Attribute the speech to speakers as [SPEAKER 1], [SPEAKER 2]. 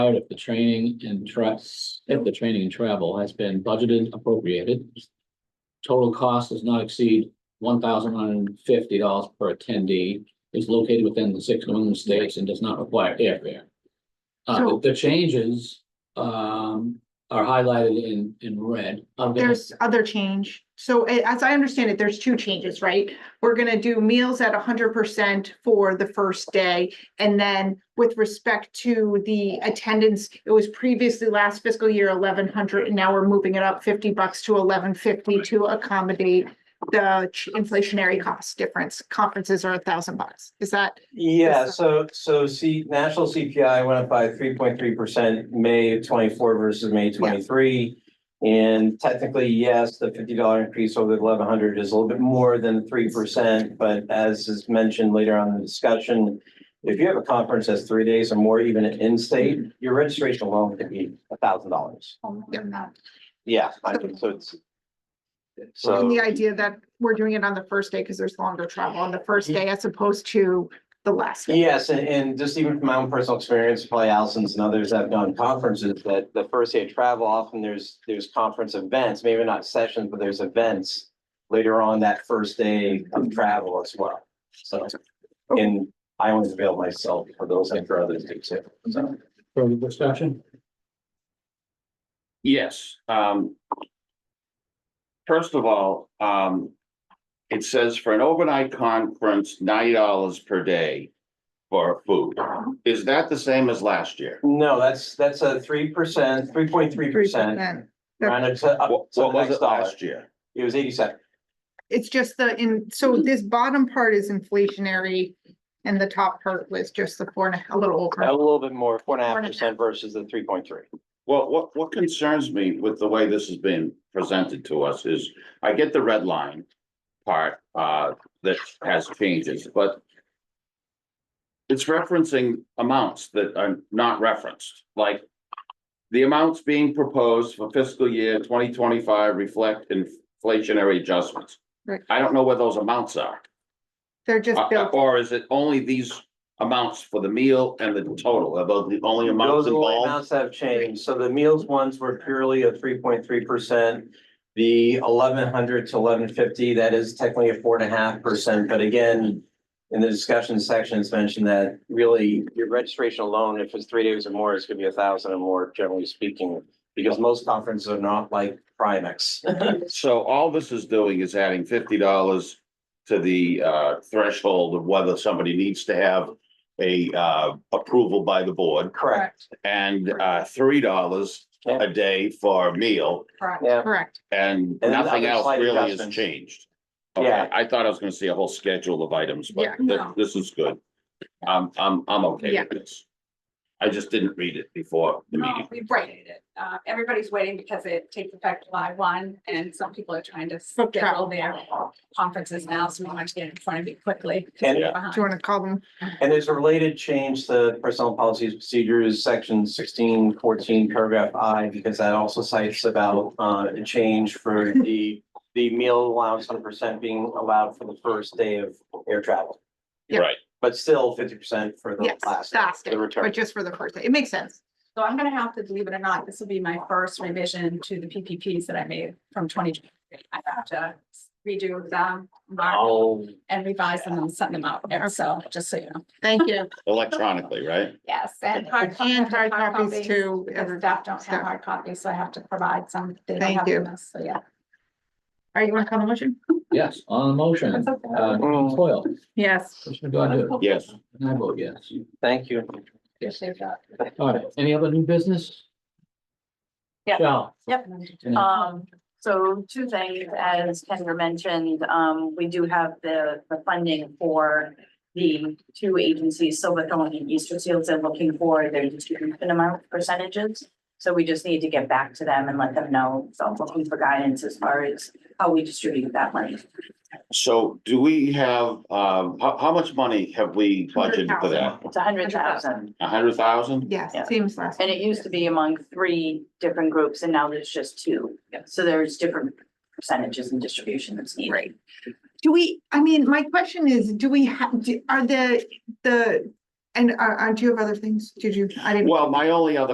[SPEAKER 1] out if the training and trust, if the training and travel has been budgeted appropriated. Total cost does not exceed one thousand one hundred and fifty dollars per attendee, is located within the six New England states and does not require airfare. Uh,
[SPEAKER 2] So-
[SPEAKER 1] the changes, um, are highlighted in, in red. I'll get-
[SPEAKER 2] There's other change. So a- as I understand it, there's two changes, right? We're gonna do meals at hundred percent for the first day. And then with respect to the attendance, it was previously last fiscal year eleven hundred and now we're moving it up fifty bucks to eleven fifty to accommodate the ch- inflationary cost difference. Conferences are a thousand bucks. Is that?
[SPEAKER 3] Yeah,
[SPEAKER 2] Yes.
[SPEAKER 3] so, so see, national CPI went up by three point three percent, May of twenty-four versus May twenty-three. And technically, yes, the fifty dollar increase over the eleven hundred is a little bit more than three percent, but as is mentioned later on in the discussion. If you have a conference that's three days or more, even in-state, your registration alone could be a thousand dollars. Yeah, I mean, so it's. So.
[SPEAKER 2] And the idea that we're doing it on the first day because there's longer travel on the first day as opposed to the last. day.
[SPEAKER 3] Yes, and, and just even from my own personal experience, probably Allison's and others have done conferences that the first day of travel, often there's, there's conference events, maybe not sessions, but there's events later on that first day of travel as well. So, and I always avail myself for those and for others too, so.
[SPEAKER 1] Further discussion?
[SPEAKER 4] Yes, um. First of all, um. It says for an overnight conference, ninety dollars per day for food. Is that the same as last year?
[SPEAKER 3] No, that's, that's a three percent, three point three percent,
[SPEAKER 2] 3%.
[SPEAKER 3] rounded to, up
[SPEAKER 4] What,
[SPEAKER 3] to the
[SPEAKER 4] what was
[SPEAKER 3] Uh, next
[SPEAKER 4] it
[SPEAKER 3] dollar.
[SPEAKER 4] last year?
[SPEAKER 3] It was eighty-seven.
[SPEAKER 2] It's just the, in, so this bottom part is inflationary and the top part was just the four and a, a little
[SPEAKER 3] a
[SPEAKER 2] over.
[SPEAKER 3] little bit more, four and a half
[SPEAKER 2] Four and a
[SPEAKER 3] percent versus the three point three.
[SPEAKER 4] Well, what, what concerns me with the way this has been presented to us is I get the red line part, uh, that has changes, but it's referencing amounts that are not referenced, like the amounts being proposed for fiscal year twenty twenty-five reflect inflationary adjustments.
[SPEAKER 2] Right.
[SPEAKER 4] I don't know where those amounts are,
[SPEAKER 2] They're just
[SPEAKER 4] Uh, uh,
[SPEAKER 2] built,
[SPEAKER 4] or is it only these amounts for the meal and the total, are those the only
[SPEAKER 3] Those
[SPEAKER 4] amounts
[SPEAKER 3] are the only
[SPEAKER 4] involved?
[SPEAKER 3] amounts that have changed. So the meals ones were purely a three point three percent. The eleven hundred to eleven fifty, that is technically a four and a half percent, but again. In the discussion section, it's mentioned that really your registration alone, if it's three days or more, it's gonna be a thousand or more, generally speaking. Because most conferences are not like Primex.
[SPEAKER 4] So all this is doing is adding fifty dollars to the uh threshold of whether somebody needs to have a uh approval by the board
[SPEAKER 3] Correct.
[SPEAKER 4] and uh three dollars a day for a meal
[SPEAKER 2] correct,
[SPEAKER 3] Yeah.
[SPEAKER 2] correct.
[SPEAKER 4] and
[SPEAKER 3] And
[SPEAKER 4] nothing
[SPEAKER 3] other
[SPEAKER 4] else
[SPEAKER 3] slight
[SPEAKER 4] really has
[SPEAKER 3] adjustments.
[SPEAKER 4] changed. Okay,
[SPEAKER 3] Yeah.
[SPEAKER 4] I thought I was gonna see a whole schedule of items, but
[SPEAKER 2] Yeah,
[SPEAKER 4] thi-
[SPEAKER 2] no.
[SPEAKER 4] this is good. I'm I'm I'm okay
[SPEAKER 2] Yeah.
[SPEAKER 4] with this. I just didn't read it before the
[SPEAKER 5] No,
[SPEAKER 4] meeting.
[SPEAKER 5] we've Oh, waited it. Uh, everybody's waiting because it takes effect July one and some people are trying to
[SPEAKER 2] Book travel.
[SPEAKER 5] schedule their conferences now, so we want to get in front of it quickly. 'cause
[SPEAKER 3] And-
[SPEAKER 5] we're
[SPEAKER 4] Yeah.
[SPEAKER 2] Do you
[SPEAKER 5] behind.
[SPEAKER 2] want to call them?
[SPEAKER 3] And there's a related change to personnel policies procedures, section sixteen fourteen, paragraph I, because that also cites about uh a change for the the meal allowance hundred percent being allowed for the first day of air travel,
[SPEAKER 2] Yeah.
[SPEAKER 4] Right,
[SPEAKER 3] but still fifty percent for the
[SPEAKER 2] Yes,
[SPEAKER 3] last,
[SPEAKER 2] last day,
[SPEAKER 3] the return.
[SPEAKER 2] but just for the first day. It makes sense.
[SPEAKER 5] So I'm gonna have to, believe it or not, this will be my first revision to the PPPs that I made from twenty twenty. I have to redo them, mark
[SPEAKER 3] Oh,
[SPEAKER 5] and revise them and send them out. And so, just so you know,
[SPEAKER 2] Thank you.
[SPEAKER 4] electronically, right?
[SPEAKER 5] yes. And hard
[SPEAKER 2] And hard copies too.
[SPEAKER 5] Because
[SPEAKER 2] every-
[SPEAKER 5] staff don't have
[SPEAKER 2] All
[SPEAKER 5] hard copies, so I have to provide some. They don't
[SPEAKER 2] Thank
[SPEAKER 5] have
[SPEAKER 2] you.
[SPEAKER 5] them, So, yeah.
[SPEAKER 2] right, you want to call the motion?
[SPEAKER 1] Yes, on the motion,
[SPEAKER 5] That's okay.
[SPEAKER 1] uh, Coyle,
[SPEAKER 2] Yes.
[SPEAKER 1] Commissioner Godu?
[SPEAKER 4] Yes.
[SPEAKER 1] And I vote yes.
[SPEAKER 3] thank you.
[SPEAKER 5] Appreciate that.
[SPEAKER 1] All right, any other new business?
[SPEAKER 6] Yeah.
[SPEAKER 1] Michelle?
[SPEAKER 6] Yep.
[SPEAKER 1] And I-
[SPEAKER 6] Um, so two things, as Kendra mentioned, um, we do have the, the funding for the two agencies, Silverthorne and Easter Seals, are looking for their distribution amount percentages. So we just need to get back to them and let them know, so I'm looking for guidance as far as how we distribute that money.
[SPEAKER 4] So do we have, um, how, how much money have we budgeted for that?
[SPEAKER 6] It's a hundred thousand,
[SPEAKER 4] A hundred thousand?
[SPEAKER 2] Yes,
[SPEAKER 6] Yeah.
[SPEAKER 2] seems last.
[SPEAKER 6] and it used to be among three different groups, and now there's just two. So there's different percentages and distribution that's needed.
[SPEAKER 2] Right. Do we, I mean, my question is, do we have, uh, are the, the, and are, aren't you have other things? Did you, I didn't.
[SPEAKER 4] Well, my only other